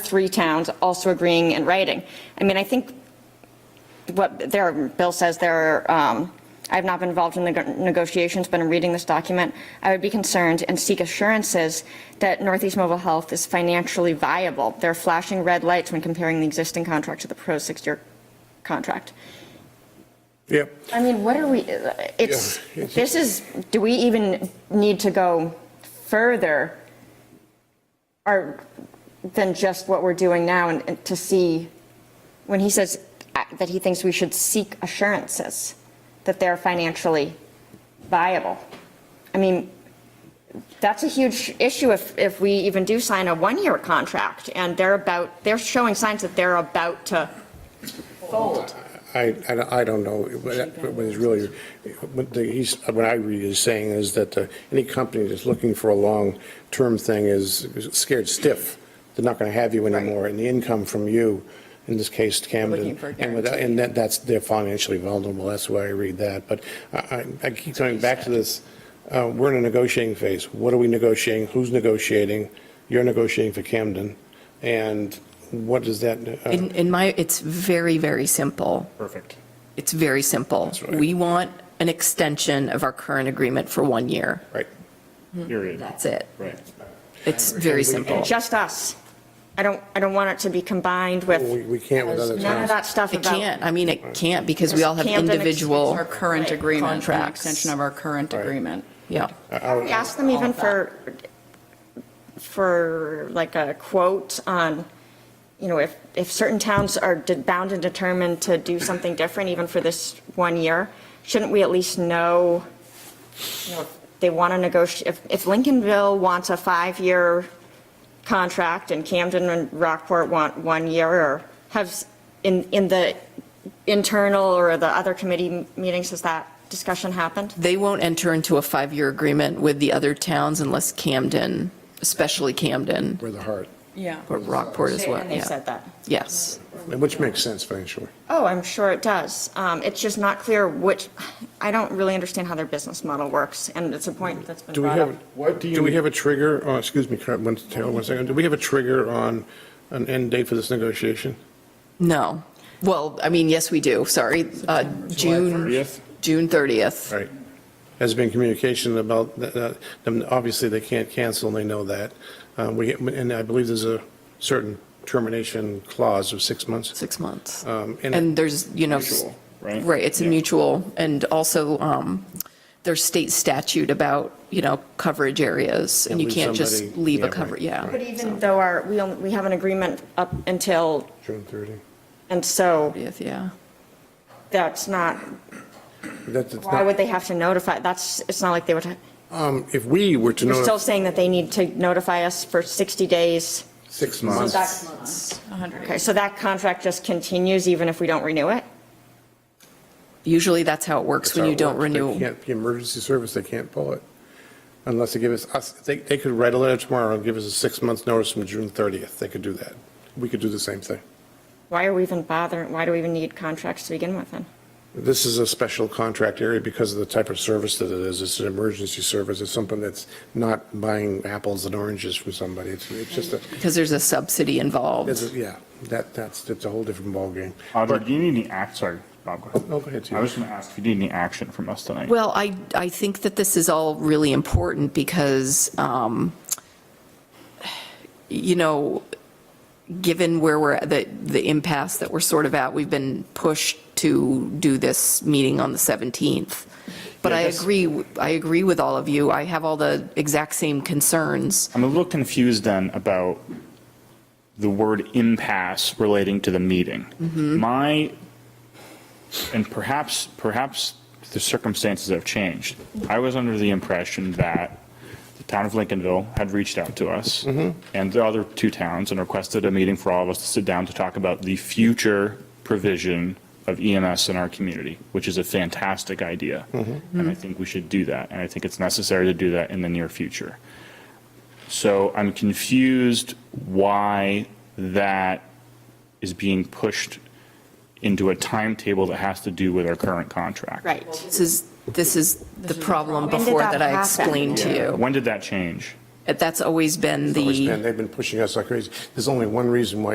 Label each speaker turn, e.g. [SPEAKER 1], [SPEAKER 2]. [SPEAKER 1] three towns also agreeing in writing. I mean, I think what there, Bill says there, are, um, I've not been involved in the negotiations, but I'm reading this document. I would be concerned and seek assurances that Northeast Mobile Health is financially viable. There are flashing red lights when comparing the existing contract to the proposed six-year contract.
[SPEAKER 2] Yeah,
[SPEAKER 1] I mean, what are we, it's,
[SPEAKER 2] Yeah, it's-
[SPEAKER 1] this is, do we even need to go further or than just what we're doing now and and to see, when he says uh, that he thinks we should seek assurances that they're financially viable? I mean, that's a huge issue if, if we even do sign a one-year contract and they're about, they're showing signs that they're about to fold.
[SPEAKER 2] I, I don't- I don't know, but but it's really, what the- he's, what I read is saying is that uh, any company that's looking for a long-term thing is scared stiff. They're not going to have you anymore, and the income from you, in this case, Camden.
[SPEAKER 1] looking for a
[SPEAKER 2] and without- And that, that's, they're financially vulnerable, that's why I read that. But I, I- I keep coming back to this, uh, we're in a negotiating phase. What are we negotiating? Who's negotiating? You're negotiating for Camden, and what does that? uh,
[SPEAKER 3] In, in my, it's very, very simple.
[SPEAKER 2] Perfect.
[SPEAKER 3] It's very simple.
[SPEAKER 2] right.
[SPEAKER 3] We want an extension of our current agreement for one year.
[SPEAKER 2] Right.
[SPEAKER 4] Period,
[SPEAKER 3] That's it.
[SPEAKER 4] right.
[SPEAKER 3] It's very simple.
[SPEAKER 1] just us. I don't, I don't want it to be combined
[SPEAKER 2] We,
[SPEAKER 1] with
[SPEAKER 2] we can't with other
[SPEAKER 1] none of
[SPEAKER 2] towns.
[SPEAKER 1] that stuff
[SPEAKER 3] It
[SPEAKER 1] about.
[SPEAKER 3] can't, I mean, it can't because we all have
[SPEAKER 1] Camden extends
[SPEAKER 3] individual.
[SPEAKER 1] our
[SPEAKER 5] Our current agreement, an
[SPEAKER 3] Contracts.
[SPEAKER 5] extension of our current
[SPEAKER 2] Right.
[SPEAKER 5] agreement.
[SPEAKER 3] Yeah.
[SPEAKER 1] We asked them even for, for like a quote on, you know, if, if certain towns are de- bound and determined to do something different, even for this one year, shouldn't we at least know, you know, if they want to negotiate, if, if Lincolnville wants a five-year contract and Camden and Rockport want one year, or have, s- in, in the internal or the other committee meetings, has that discussion happened?
[SPEAKER 3] They won't enter into a five-year agreement with the other towns unless Camden, especially Camden,
[SPEAKER 2] With the heart,
[SPEAKER 5] Yeah.
[SPEAKER 3] but Rockport as well,
[SPEAKER 1] And they
[SPEAKER 3] yeah.
[SPEAKER 1] said that.
[SPEAKER 3] Yes.
[SPEAKER 1] Mm-hmm.
[SPEAKER 2] which makes sense financially.
[SPEAKER 1] Oh, I'm sure it does. Um, It's just not clear which, I don't really understand how their business model works, and it's a point that's been
[SPEAKER 2] Do we
[SPEAKER 1] brought up.
[SPEAKER 2] have,
[SPEAKER 4] What do
[SPEAKER 2] do we
[SPEAKER 4] you-
[SPEAKER 2] have a trigger, oh, excuse me, Carol, one, Taylor, one second, do we have a trigger on an end date for this negotiation?
[SPEAKER 3] No. Well, I mean, yes, we do, sorry. Uh, June,
[SPEAKER 4] 30th?
[SPEAKER 3] June 30th.
[SPEAKER 2] Right. Has been communication about, that- that- them- obviously, they can't cancel, and they know that. Uh, We, and I believe there's a certain termination clause of six months.
[SPEAKER 3] six months.
[SPEAKER 2] Um, and-
[SPEAKER 3] And there's, you know. s-
[SPEAKER 4] Mutual, right?
[SPEAKER 3] Right, it's a
[SPEAKER 4] Yeah.
[SPEAKER 3] mutual, and also, um, there's state statute about, you know, coverage areas, and
[SPEAKER 2] Yeah,
[SPEAKER 3] you
[SPEAKER 2] leave
[SPEAKER 3] can't just
[SPEAKER 2] somebody-
[SPEAKER 3] leave
[SPEAKER 2] yeah,
[SPEAKER 3] a
[SPEAKER 2] right,
[SPEAKER 3] cover, yeah.
[SPEAKER 1] But even though our, we only, we have an agreement up until,
[SPEAKER 2] June 30.
[SPEAKER 1] and so
[SPEAKER 3] Yeah,
[SPEAKER 1] that's not,
[SPEAKER 2] That's, it's
[SPEAKER 1] why would
[SPEAKER 2] not,
[SPEAKER 1] they have to notify? That's, it's not like they would, ha-
[SPEAKER 2] um, if we were to
[SPEAKER 1] you're still
[SPEAKER 2] know,
[SPEAKER 1] saying that they need to notify us for 60 days.
[SPEAKER 2] six
[SPEAKER 1] So
[SPEAKER 2] months,
[SPEAKER 1] that- Okay, so that contract just continues even if we don't renew it?
[SPEAKER 3] usually that's how it works
[SPEAKER 2] That's
[SPEAKER 3] when
[SPEAKER 2] how
[SPEAKER 3] you
[SPEAKER 2] it
[SPEAKER 3] don't
[SPEAKER 2] works. They
[SPEAKER 3] renew.
[SPEAKER 2] can't- The emergency service, they can't pull it unless they give us, us, they, they could write a letter tomorrow and give us a six-month notice from June 30th. They could do that. We could do the same thing.
[SPEAKER 1] Why are we even bothering, why do we even need contracts to begin with then?
[SPEAKER 2] This is a special contract area because of the type of service that it is. It's an emergency service. It's something that's not buying apples and oranges from somebody. It's, it's just a,
[SPEAKER 3] Because there's a subsidy
[SPEAKER 2] it's, a-
[SPEAKER 3] involved.
[SPEAKER 2] yeah, that, that's, it's a whole different ballgame.
[SPEAKER 4] Audrey, do you need any act, sorry, Bob, go ahead.
[SPEAKER 2] No, go ahead, Steve.
[SPEAKER 4] I was going to ask if you need any action from us tonight.
[SPEAKER 3] Well, I, I think that this is all really important because, um, you know, given where we're, at, the, the impasse that we're sort of at, we've been pushed to do this meeting on the 17th. But I
[SPEAKER 4] Yeah, that's-
[SPEAKER 3] agree, w- I agree with all of you. I have all the exact same concerns.
[SPEAKER 4] I'm a little confused then about the word impasse relating to the meeting. My, and perhaps, perhaps the circumstances have changed. I was under the impression that the town of Lincolnville had reached out to us and the other two towns and requested a meeting for all of us to sit down to talk about the future provision of EMS in our community, which is a fantastic idea. And I think we should do that. And I think it's necessary to do that in the near future. So I'm confused why that is being pushed into a timetable that has to do with our current contract.
[SPEAKER 1] Right.
[SPEAKER 3] This is, this is the problem
[SPEAKER 1] When did
[SPEAKER 3] before
[SPEAKER 1] that
[SPEAKER 3] that I
[SPEAKER 1] happen?
[SPEAKER 3] explained to you.
[SPEAKER 4] When did that change?
[SPEAKER 3] That's always been the.
[SPEAKER 2] Always been- They've been pushing us like crazy. There's only one reason why